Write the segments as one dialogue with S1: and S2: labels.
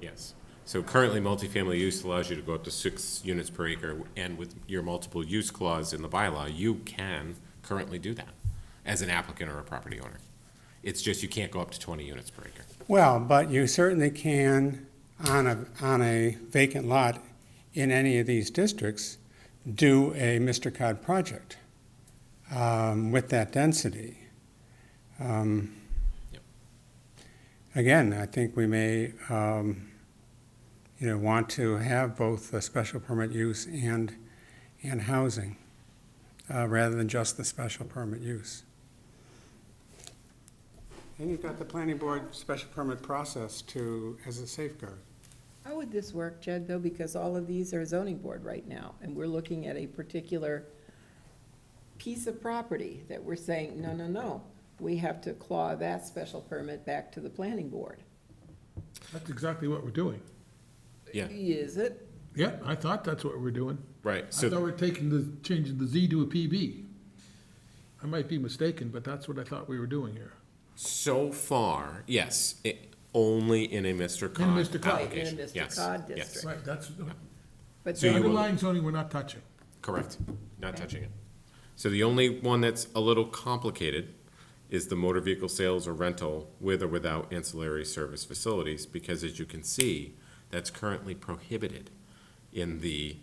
S1: units. So currently, multifamily use allows you to go up to six units per acre, and with your multiple use clause in the bylaw, you can currently do that as an applicant or a property owner. It's just you can't go up to twenty units per acre.
S2: Well, but you certainly can on a, on a vacant lot in any of these districts, do a Mr. Cod project um, with that density. Um,
S1: Yep.
S2: Again, I think we may, um, you know, want to have both the special permit use and, and housing, uh, rather than just the special permit use. And you've got the planning board special permit process to, as a safeguard.
S3: How would this work, Jed, though, because all of these are zoning board right now, and we're looking at a particular piece of property that we're saying, no, no, no, we have to claw that special permit back to the planning board.
S4: That's exactly what we're doing.
S1: Yeah,
S3: Is it?
S4: Yeah, I thought that's what we're doing. I
S1: right,
S4: thought we
S1: so,
S4: we're taking the, changing the Z to a PB. I might be mistaken, but that's what I thought we were doing here.
S1: so far, yes, it, only in a Mr. Cod
S4: Mr. Cod.
S3: Right, in a
S1: application.
S3: Mr.
S1: Yes,
S3: Cod
S1: yes,
S3: district.
S4: Right, that's,
S3: But
S1: So
S4: the
S1: you
S3: then-
S1: will-
S4: underlying zoning we're not touching.
S1: Correct, not touching it. So the only one that's a little complicated is the motor vehicle sales or rental with or without ancillary service facilities, because as you can see, that's currently prohibited in the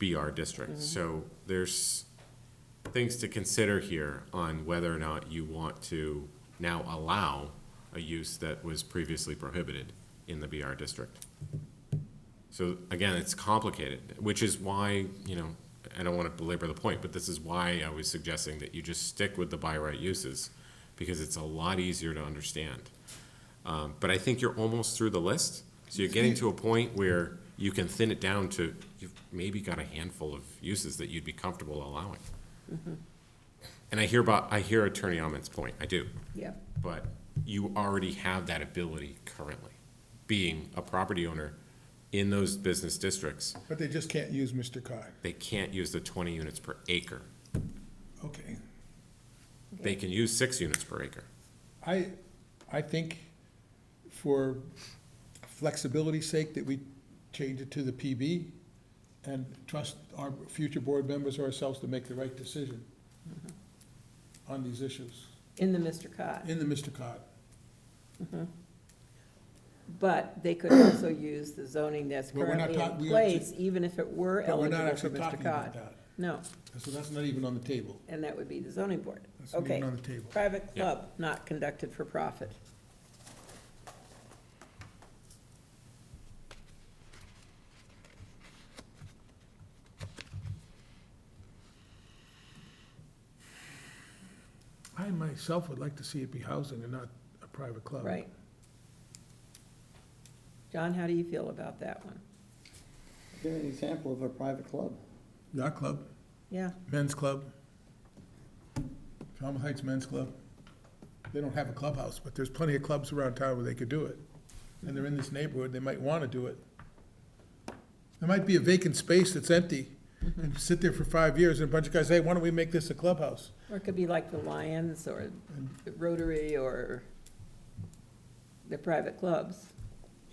S1: BR district. So there's things to consider here on whether or not you want to now allow a use that was previously prohibited in the BR district. So again, it's complicated, which is why, you know, I don't want to belabor the point, but this is why I was suggesting that you just stick with the by right uses because it's a lot easier to understand. Um, but I think you're almost through the list. So you're getting to a point where you can thin it down to, you've maybe got a handful of uses that you'd be comfortable allowing. And I hear about, I hear Attorney Ahmed's point, I do
S3: Yeah,
S1: but you already have that ability currently, being a property owner in those business districts.
S5: But they just can't use Mr. Cod.
S1: They can't use the twenty units per acre.
S5: Okay.
S1: They can use six units per acre.
S5: I, I think for flexibility's sake that we change it to the PB and trust our future board members or ourselves to make the right decision on these issues
S3: in the Mr. Cod.
S5: in the Mr. Cod.
S3: But they could also use the zoning that's
S5: But we're not
S3: currently in
S5: talk- we are ju-
S3: place, even if it were
S5: But we're not
S3: eligible for
S5: actually
S3: Mr.
S5: talking about
S3: Cod.
S5: that.
S3: No,
S5: So that's not even on the table.
S3: and that would be the zoning board.
S5: That's not even
S3: Okay,
S5: on the table.
S3: private
S1: Yeah.
S3: club, not conducted for profit.
S4: I myself would like to see it be housing and not a private club.
S3: Right. John, how do you feel about that one?
S6: Give an example of a private club.
S4: Yacht club,
S3: Yeah,
S4: men's club, Falmouth Heights Men's Club. They don't have a clubhouse, but there's plenty of clubs around town where they could do it. And they're in this neighborhood, they might want to do it. There might be a vacant space that's empty and sit there for five years and a bunch of guys, hey, why don't we make this a clubhouse?
S3: or it could be like the Lions or the Rotary or the private clubs.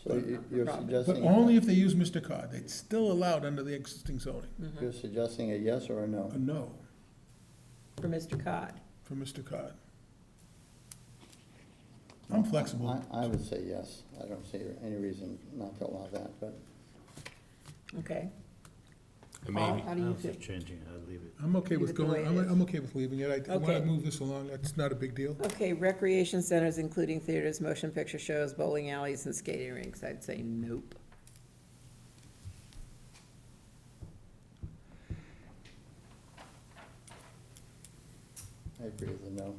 S6: So you- you're
S3: Probably.
S4: But
S6: suggesting,
S4: only if they use Mr. Cod. It's still allowed under the existing zoning.
S6: you're suggesting a yes or a no?
S5: Uh,
S4: A no
S3: For Mr. Cod,
S4: for Mr. Cod. I'm flexible.
S6: I, I would say yes. I don't see any reason not to allow that, but
S3: okay?
S1: And
S3: Paul,
S1: maybe,
S3: how do
S7: I
S3: you
S7: don't think
S3: feel?
S7: changing it, I'd leave it.
S4: I'm okay
S3: Leave
S4: with
S3: it the way
S4: going,
S3: it
S4: I'm,
S3: is.
S4: I'm okay with leaving it. I- I want
S3: Okay.
S4: to move this along. That's not a big deal.
S3: Okay, recreation centers, including theaters, motion picture shows, bowling alleys, and skating rinks, I'd say nope.
S6: I agree with the no.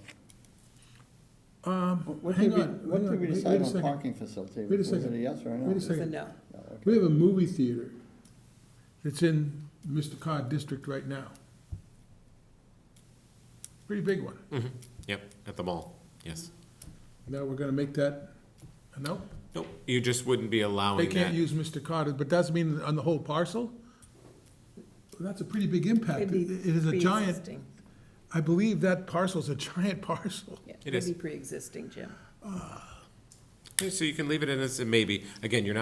S4: Um,
S6: What
S4: hang
S6: did we,
S4: on,
S6: what
S4: hang on,
S6: did we
S4: wait- wait
S6: decide
S4: a
S6: on
S4: second.
S6: parking facility?
S4: Wait a
S6: Was it a
S4: second.
S6: yes or a no?
S4: Wait a
S3: It's a
S4: Second.
S3: no.
S6: No, okay.
S4: We have a movie theater that's in Mr. Cod District right now. Pretty big one.
S1: yep, at the mall, yes.
S4: Now we're gonna make that a no?
S1: Nope, you just wouldn't be
S4: They
S1: allowing
S4: can't
S1: that.
S4: use Mr. Cod, but doesn't mean on the whole parcel? That's a pretty big impact.
S3: It'd
S4: It
S3: be
S4: it is a giant,
S3: pre-existing.
S4: I believe that parcel's a giant parcel.
S3: Yeah,
S1: It
S3: it'd
S1: is.
S3: be pre-existing, Jim.
S1: So you can leave it in as a maybe. Again, you're not